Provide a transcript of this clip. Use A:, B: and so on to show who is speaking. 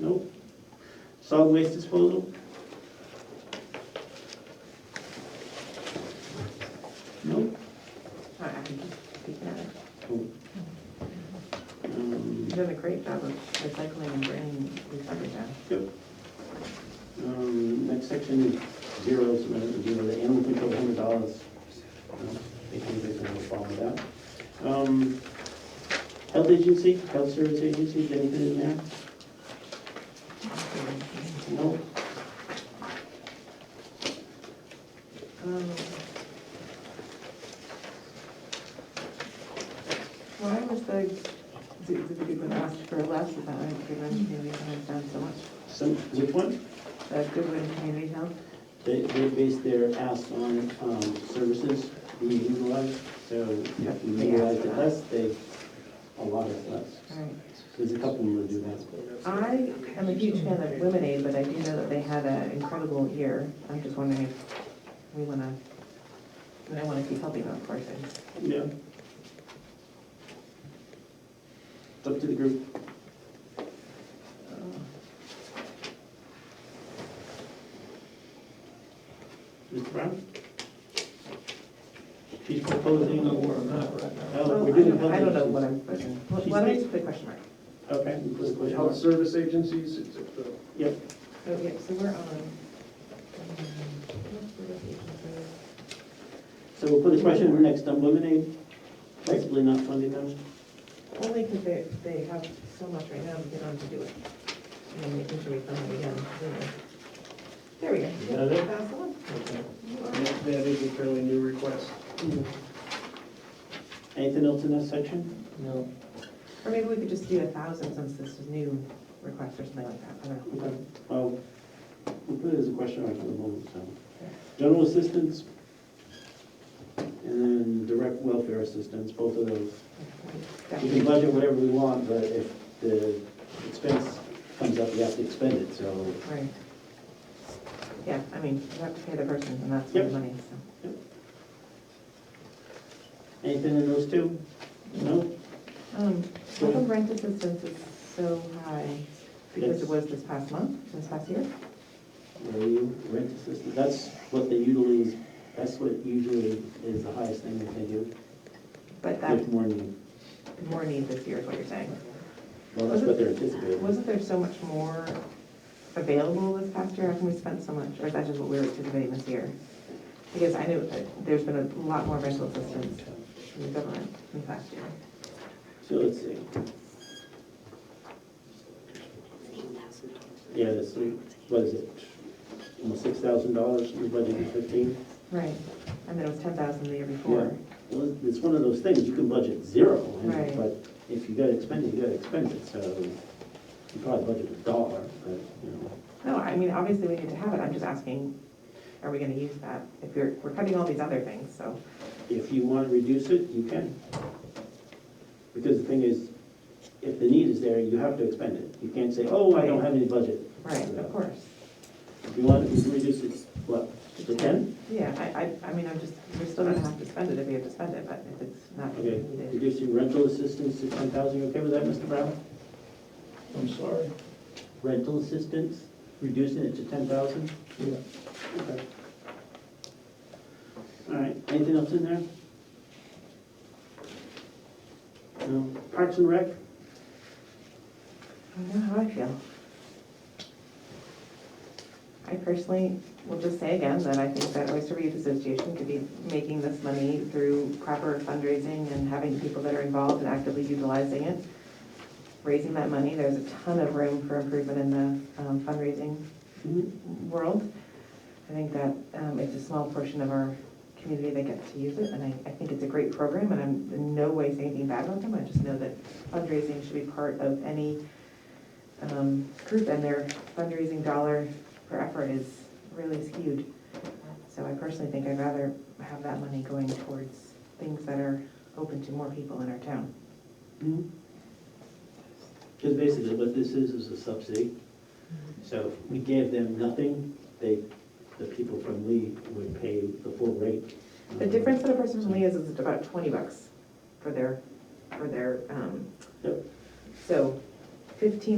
A: Nope. Solid waste disposal? Nope.
B: I I can speak that.
A: Um,
B: You've done a great job of recycling and bringing recovery back.
A: Yep. Um, next section, zeros, uh, zero, the animal control, hundred dollars. They can, they can have a problem with that. Um, health agency, health service agency, is anything in there? No?
B: Um, Why was the, did did the Goodwin ask for less about the Goodwin Community Health done so much?
A: Some, which one?
B: The Goodwin Community Health?
A: They, they base their ask on, um, services being utilized, so if you
B: They ask
A: utilize
B: for
A: it
B: that.
A: less, they, a lot of less.
B: All right.
A: There's a couple more that do that.
B: I am a huge fan of Lemonade, but I do know that they had an incredible year. I'm just wondering if we want to, I want to keep helping them, of course. I just-
A: Yeah. It's up to the group. Mr. Brown? She's proposing. Oh,
B: Well,
A: we're
B: I
A: doing
B: don't- I don't know
A: health
B: what Oh,
A: agencies.
B: I'm, why don't I just put a question mark?
A: Okay. we put a question
C: Health
A: mark.
C: service agencies, it's at the
A: Yep,
B: Oh, yeah, so we're on.
A: so we'll put a question mark next, um, lemonade, possibly not funding them.
B: Only because they, they have so much right now, that they don't have to do it. And then we usually fund them again. don't we? There we go.
C: You got it?
B: Pass on. You are-
C: That that is a fairly new request.
A: Mm-hmm. Anything else in that section?
C: No.
B: Or maybe we could just do a thousand since this is new request or something like that, I don't know.
A: Okay, well, we'll put it as a question mark for the moment, so. General assistance and then direct welfare assistance, both of those. We can budget whatever we want, but if the expense comes up, we have to expend it, so.
B: Right. Yeah, I mean, you have to pay the person and that's the
A: Yep.
B: money, so.
A: Anything in those two? No?
B: Um,
A: how come
B: rent assistance is so high? Because it was this past month, this past year?
A: Where are you? Rent assistance, that's what they usually, that's what usually is the highest thing that they do.
B: But that,
A: If more than,
B: more need this year is what you're saying.
A: well, that's what they're anticipating.
B: Wasn't there so much more available this past year? How come we spent so much? Or is that just what we were anticipating this year? Because I knew that there's been a lot more rental assistance from the government in the past year.
A: So let's see. Yeah, that's, what is it? Almost six thousand dollars, we budgeted fifteen.
B: Right. And then it was ten thousand the year before.
A: Well, it's one of those things, you can budget zero, and-
B: Right.
A: but if you gotta expend it, you gotta expend it, so you probably budget a dollar, but, you know.
B: No, I mean, obviously we need to have it. I'm just asking, are we gonna use that? If we're, we're cutting all these other things, so.
A: If you wanna reduce it, you can. Because the thing is, if the need is there, you have to expend it. You can't say, oh, I don't have any budget.
B: Right, of course.
A: If you want, you can reduce it, what, to ten?
B: Yeah, I, I, I mean, I'm just, we're still gonna have to spend it if we have to spend it, but if it's not
A: Okay,
B: needed.
A: reducing rental assistance to ten thousand, you okay with that, Mr. Brown?
C: I'm sorry.
A: Rental assistance, reducing it to ten thousand?
C: Yeah.
A: Okay. All right, anything else in there? No, Parks and Rec,
B: I don't know how I feel. I personally will just say again that I think that Oyster Reef Association could be making this money through proper fundraising and having people that are involved and actively utilizing it. Raising that money, there's a ton of room for improvement in the um, fundraising world. I think that um, it's a small portion of our community that gets to use it, and I, I think it's a great program, and I'm in no way saying anything bad about them, I just know that fundraising should be part of any um, group, and their fundraising dollar per effort is really skewed. So I personally think I'd rather have that money going towards things that are open to more people in our town.
A: Because basically what this is, is a subsidy. So if we gave them nothing, they, the people from Lee would pay the full rate.
B: The difference that a person from Lee is, is about twenty bucks for their, for their, um,
A: Yep.
B: so fifteen